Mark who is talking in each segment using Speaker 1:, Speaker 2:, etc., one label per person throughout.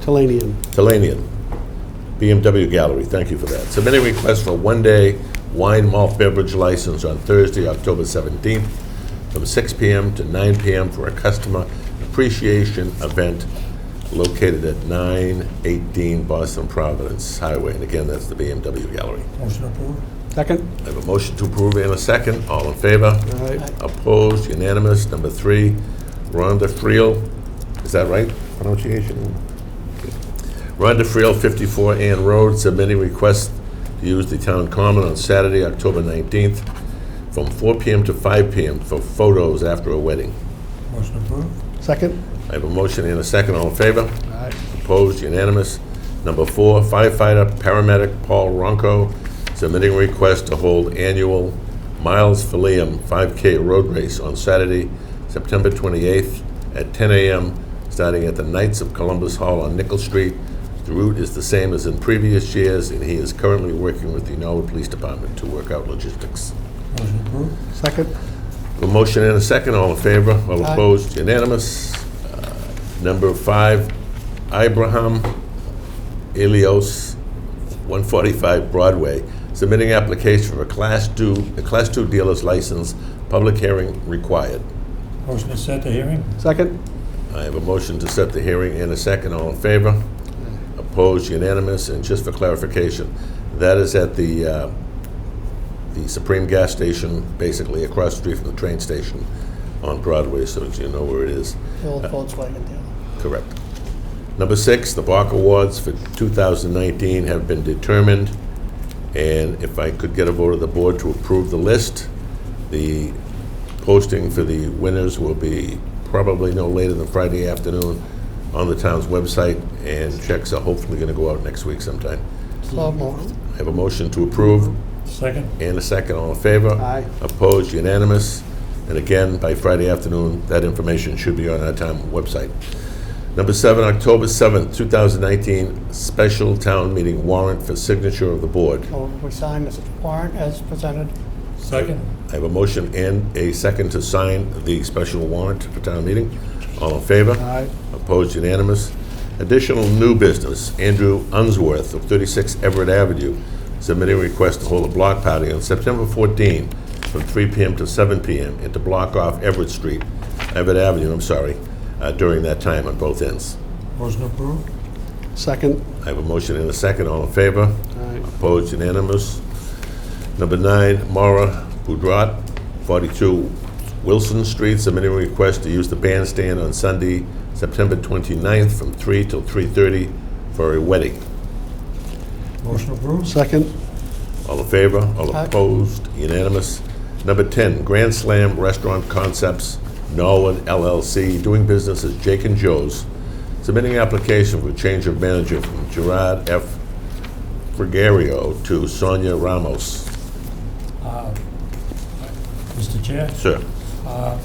Speaker 1: Talanian.
Speaker 2: Talanian, BMW Gallery, thank you for that. Submit a request for a one-day wine malt beverage license on Thursday, October 17th, from 6 PM to 9 PM for a customer appreciation event located at 918 Boston Providence Highway. And again, that's the BMW Gallery.
Speaker 3: Motion approved.
Speaker 1: Second?
Speaker 2: I have a motion to approve and a second. All in favor?
Speaker 1: Aye.
Speaker 2: Opposed? Unanimous? Number three, Rhonda Friel, is that right? Pronunciation? Rhonda Friel, 54 Ann Road, submitting request to use the town common on Saturday, October 19th, from 4 PM to 5 PM for photos after a wedding.
Speaker 3: Motion approved.
Speaker 1: Second?
Speaker 2: I have a motion and a second. All in favor?
Speaker 1: Aye.
Speaker 2: Opposed, unanimous. Number four, firefighter, paramedic Paul Ronco submitting request to hold annual Miles Philem 5K road race on Saturday, September 28th at 10 a.m., starting at the Knights of Columbus Hall on Nickel Street. The route is the same as in previous years, and he is currently working with the Norwood Police Department to work out logistics.
Speaker 3: Motion approved.
Speaker 1: Second?
Speaker 2: A motion and a second, all in favor, all
Speaker 1: Aye.
Speaker 2: opposed, unanimous. Uh, Number five, Abraham Elios, 145 Broadway, submitting application for a Class 2, a Class 2 dealer's license, public hearing required.
Speaker 3: Motion to set the hearing.
Speaker 1: Second?
Speaker 2: I have a motion to set the hearing and a second, all in favor? Opposed, unanimous, and just for clarification, that is at the, uh, the Supreme Gas Station, basically across the street from the train station on Broadway, so that you know where it is.
Speaker 4: Old Volkswagen
Speaker 1: Mm-hmm.
Speaker 4: dealer.
Speaker 2: Correct. Number six, the Bach Awards for 2019 have been determined, and if I could get a vote of the board to approve the list, the posting for the winners will be probably no later than Friday afternoon on the town's website, and checks are hopefully going to go out next week sometime.
Speaker 4: So moved.
Speaker 2: I have a motion to approve
Speaker 3: Second.
Speaker 2: and a second. All in favor?
Speaker 1: Aye.
Speaker 2: Opposed? Unanimous? And again, by Friday afternoon, that information should be on our town website. Number seven, October 7th, 2019, special town meeting warrant for signature of the board.
Speaker 4: So we sign this warrant as presented.
Speaker 3: Second.
Speaker 2: I have a motion and a second to sign the special warrant for town meeting. All in favor?
Speaker 1: Aye.
Speaker 2: Opposed? Unanimous? Additional new business, Andrew Unsworth of 36 Everett Avenue submitting a request to hold a block party on September 14 from 3 PM to 7 PM and to block off Everett Street, Everett Avenue, I'm sorry, uh, during that time on both ends.
Speaker 3: Motion approved.
Speaker 1: Second?
Speaker 2: I have a motion and a second. All in favor?
Speaker 1: Aye.
Speaker 2: Opposed, unanimous. Number nine, Mara Boudrat, 42 Wilson Street, submitting a request to use the bandstand on Sunday, September 29th, from 3 till 3:30 for a wedding.
Speaker 3: Motion approved.
Speaker 1: Second?
Speaker 2: All in favor? All
Speaker 4: Aye.
Speaker 2: opposed? Unanimous. Number 10, Grand Slam Restaurant Concepts, Norwood LLC, doing business as Jake and Joe's, submitting application for change of manager from Gerard F. Frigario to Sonia Ramos.
Speaker 3: Uh, Mr. Chair,
Speaker 2: Sir?
Speaker 3: uh,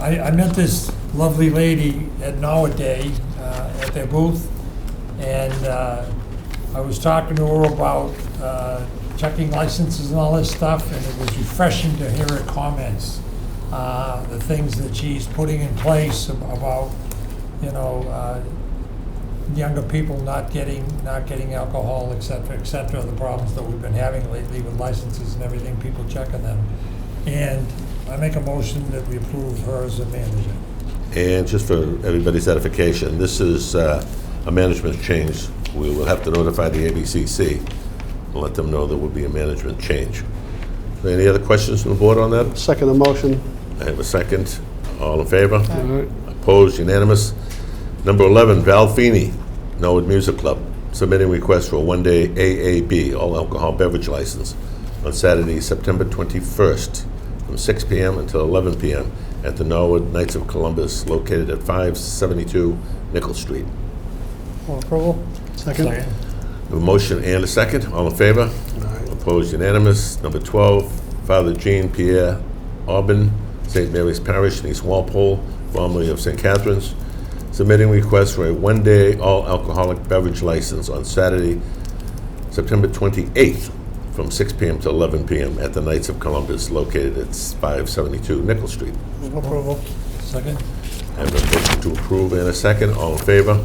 Speaker 3: I, I met this lovely lady at Nowaday uh, at their booth, and uh, I was talking to her about uh, checking licenses and all this stuff, and it was refreshing to hear her comments, uh, the things that she's putting in place ab- about, you know, uh, younger people not getting, not getting alcohol, et cetera, et cetera, the problems that we've been having lately with licenses and everything, people checking them. And I make a motion that we approve her as a manager.
Speaker 2: And just for everybody's edification, this is uh, a management change. We will have to notify the ABCC and let them know there will be a management change. Any other questions from the board on that?
Speaker 1: Second the motion.
Speaker 2: I have a second. All in favor?
Speaker 1: Aye.
Speaker 2: Opposed, unanimous. Number 11, Val Feeney, Norwood Music Club, submitting request for a one-day AAB, all alcohol beverage license, on Saturday, September 21st, from 6 PM until 11 PM at the Norwood Knights of Columbus, located at 572 Nickel Street.
Speaker 4: For approval?
Speaker 1: Second?
Speaker 2: A motion and a second, all in favor? Opposed, unanimous. Number 12, Father Jean Pierre Aubin, St. Mary's Parish, in East Walpole, formerly of St. Catherine's, submitting request for a one-day all-alcoholic beverage license on Saturday, September 28th, from 6 PM to 11 PM at the Knights of Columbus, located at 572 Nickel Street.
Speaker 4: Move approval.
Speaker 3: Second?
Speaker 2: I have a motion to approve and a second, all in favor?